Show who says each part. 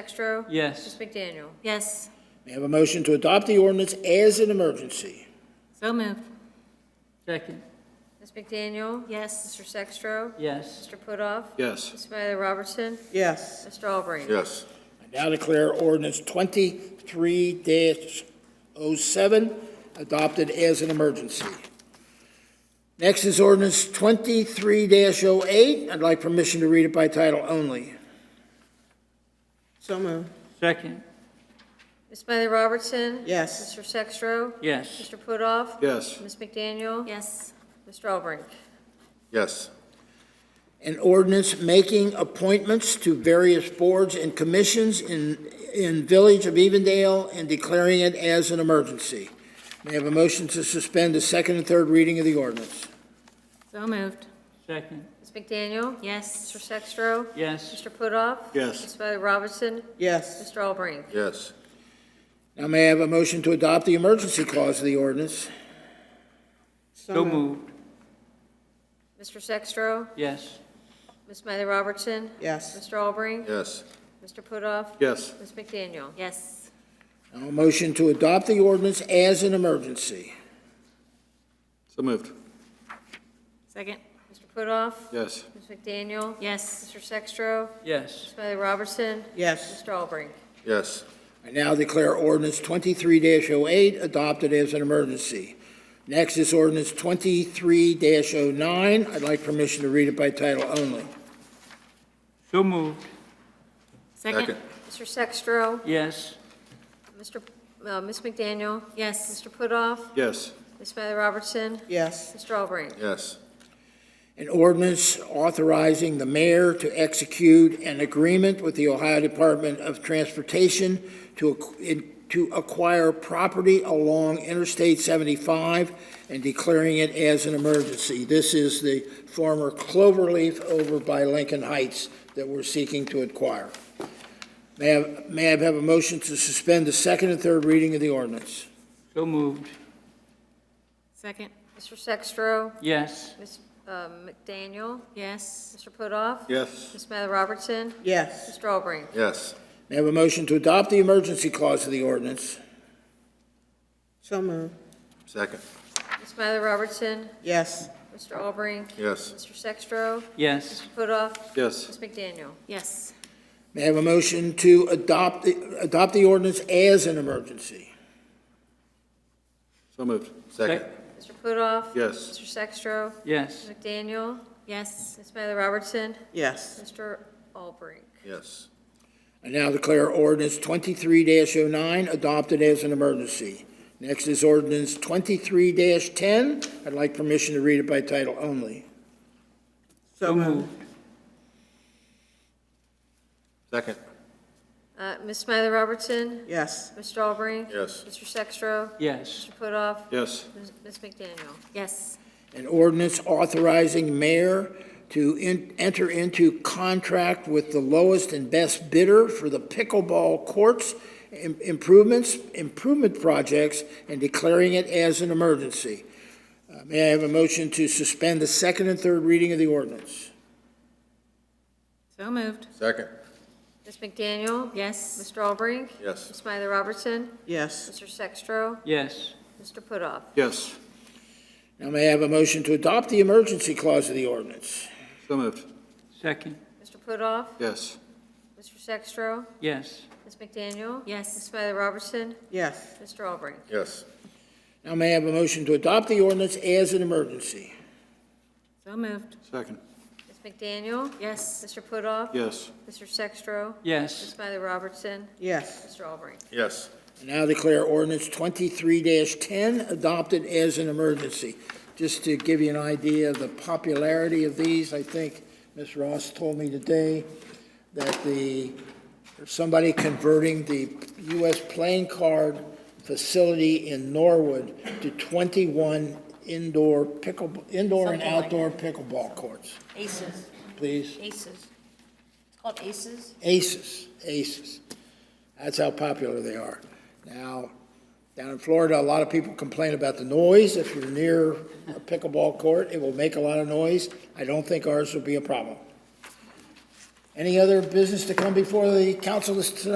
Speaker 1: Sextro.
Speaker 2: Yes.
Speaker 1: Ms. McDaniel.
Speaker 3: Yes,
Speaker 4: May I have a motion to adopt the ordinance as an emergency?
Speaker 3: so moved.
Speaker 2: Second.
Speaker 1: Ms. McDaniel.
Speaker 3: Yes,
Speaker 1: Mr. Sextro.
Speaker 2: Yes.
Speaker 1: Mr. Putoff.
Speaker 5: Yes.
Speaker 1: Ms. Smiley Robertson.
Speaker 6: yes,
Speaker 1: Mr. Albrecht.
Speaker 5: Yes.
Speaker 4: I now declare ordinance twenty-three 7 adopted as an emergency. Next is ordinance twenty-three 8 oh eight. I'd like permission to read it by title only.
Speaker 6: so moved,
Speaker 2: Second.
Speaker 1: Ms. Smiley Robertson.
Speaker 6: yes,
Speaker 1: Mr. Sextro.
Speaker 2: Yes.
Speaker 1: Mr. Putoff.
Speaker 5: Yes.
Speaker 1: Ms. McDaniel.
Speaker 3: yes,
Speaker 1: Mr. Albrecht.
Speaker 5: Yes.
Speaker 4: An ordinance making appointments to various boards and commissions in, in Village of Evendale and declaring it as an emergency. May I have a motion to suspend the second and third reading of the ordinance?
Speaker 3: so moved.
Speaker 2: Second.
Speaker 1: Ms. McDaniel. Mr.
Speaker 3: Yes,
Speaker 1: Sextro.
Speaker 2: Yes.
Speaker 1: Mr. Putoff.
Speaker 5: Yes.
Speaker 1: Ms. Smiley Robertson.
Speaker 6: yes,
Speaker 1: Mr. Albrecht.
Speaker 5: Yes.
Speaker 4: Now may I have a motion to adopt the emergency clause of the ordinance?
Speaker 2: So
Speaker 6: so moved,
Speaker 2: moved.
Speaker 1: Mr. Sextro.
Speaker 2: Yes.
Speaker 1: Ms. Smiley Robertson.
Speaker 6: yes,
Speaker 1: Mr. Albrecht.
Speaker 5: Yes.
Speaker 1: Mr. Putoff.
Speaker 5: Yes.
Speaker 1: Ms. McDaniel.
Speaker 3: yes,
Speaker 4: Now a motion to adopt the ordinance as an emergency.
Speaker 5: So moved.
Speaker 3: second.
Speaker 1: Mr. Putoff.
Speaker 5: Yes.
Speaker 1: Ms. McDaniel.
Speaker 3: Yes,
Speaker 1: Mr. Sextro.
Speaker 2: Yes.
Speaker 1: Ms. Smiley Robertson.
Speaker 6: yes,
Speaker 1: Mr. Albrecht.
Speaker 5: Yes.
Speaker 4: I now declare ordinance twenty-three 8 adopted as an emergency. Next is ordinance twenty-three 9 oh nine. I'd like permission to read it by title only.
Speaker 2: So moved.
Speaker 3: second.
Speaker 1: Mr. Sextro.
Speaker 2: Yes.
Speaker 1: Mr., uh, Ms. McDaniel.
Speaker 3: Yes,
Speaker 1: Mr. Putoff.
Speaker 5: Yes.
Speaker 1: Ms. Smiley Robertson.
Speaker 6: yes,
Speaker 1: Mr. Albrecht.
Speaker 5: Yes.
Speaker 4: An ordinance authorizing the mayor to execute an agreement with the Ohio Department of Transportation to, ac- in- to acquire property along Interstate 75 and declaring it as an emergency. This is the former Cloverleaf over by Lincoln Heights that we're seeking to acquire. May I, may I have a motion to suspend the second and third reading of the ordinance?
Speaker 2: So moved.
Speaker 3: second.
Speaker 1: Mr. Sextro.
Speaker 2: Yes.
Speaker 1: Ms. uh, McDaniel.
Speaker 3: Yes,
Speaker 1: Mr. Putoff.
Speaker 5: Yes.
Speaker 1: Ms. Smiley Robertson.
Speaker 6: yes,
Speaker 1: Mr. Albrecht.
Speaker 5: Yes.
Speaker 4: May I have a motion to adopt the emergency clause of the ordinance?
Speaker 6: so moved,
Speaker 5: Second.
Speaker 1: Ms. Smiley Robertson.
Speaker 6: yes,
Speaker 1: Mr. Albrecht.
Speaker 5: Yes.
Speaker 1: Mr. Sextro.
Speaker 2: Yes.
Speaker 1: Putoff.
Speaker 5: Yes.
Speaker 1: Ms. McDaniel.
Speaker 3: yes,
Speaker 4: May I have a motion to adopt, the- adopt the ordinance as an emergency?
Speaker 5: So moved. Second.
Speaker 2: Sec-
Speaker 1: Mr. Putoff.
Speaker 5: Yes.
Speaker 1: Mr. Sextro.
Speaker 2: Yes.
Speaker 1: Ms. McDaniel.
Speaker 3: yes,
Speaker 1: Ms. Smiley Robertson.
Speaker 6: yes,
Speaker 1: Mr. Albrecht.
Speaker 5: Yes.
Speaker 4: I now declare ordinance twenty-three 9 adopted as an emergency. Next is ordinance twenty-three ten. I'd like permission to read it by title only.
Speaker 6: so moved,
Speaker 5: Second.
Speaker 1: Uh, Ms. Smiley Robertson.
Speaker 6: yes,
Speaker 1: Mr. Albrecht.
Speaker 5: Yes.
Speaker 1: Mr. Sextro.
Speaker 2: Yes.
Speaker 1: Mr. Putoff.
Speaker 5: Yes.
Speaker 1: Ms. Ms. McDaniel.
Speaker 3: yes,
Speaker 4: An ordinance authorizing mayor to en- enter into contract with the lowest and best bidder for the pickleball courts im- improvements, improvement projects, and declaring it as an emergency. Uh, May I have a motion to suspend the second and third reading of the ordinance?
Speaker 3: so moved.
Speaker 5: Second.
Speaker 1: Ms. McDaniel.
Speaker 3: Yes,
Speaker 1: Mr. Albrecht.
Speaker 5: Yes.
Speaker 1: Ms. Smiley Robertson.
Speaker 6: yes,
Speaker 1: Mr. Sextro.
Speaker 2: Yes.
Speaker 1: Mr. Putoff.
Speaker 5: Yes.
Speaker 4: Now may I have a motion to adopt the emergency clause of the ordinance?
Speaker 5: So moved.
Speaker 2: Second.
Speaker 1: Mr. Putoff.
Speaker 5: Yes.
Speaker 1: Mr. Sextro.
Speaker 2: Yes.
Speaker 1: Ms. McDaniel. Ms.
Speaker 3: yes,
Speaker 1: Smiley Robertson.
Speaker 6: yes,
Speaker 1: Mr. Albrecht.
Speaker 5: Yes.
Speaker 4: Now may I have a motion to adopt the ordinance as an emergency?
Speaker 3: so moved.
Speaker 5: Second.
Speaker 1: Ms. McDaniel.
Speaker 3: Yes,
Speaker 1: Mr. Putoff.
Speaker 5: Yes.
Speaker 1: Mr. Sextro. Ms.
Speaker 2: Yes.
Speaker 1: Smiley Robertson.
Speaker 6: yes,
Speaker 1: Mr. Albrecht.
Speaker 5: Yes.
Speaker 4: Now declare ordinance twenty-three ten adopted as an emergency. Just to give you an idea of the popularity of these, I think Ms. Ross told me today that the, there's somebody converting the U.S. playing card facility in Norwood to twenty-one indoor pickle, indoor and
Speaker 7: Something like
Speaker 4: outdoor pickleball courts.
Speaker 7: Aces,
Speaker 4: Please,
Speaker 7: aces. It's called aces?
Speaker 4: aces, aces. That's how popular they are. Now, down in Florida, a lot of people complain about the noise. If you're near a pickleball court, it will make a lot of noise. I don't think ours will be a problem. Any other business to come before the council this- tonight?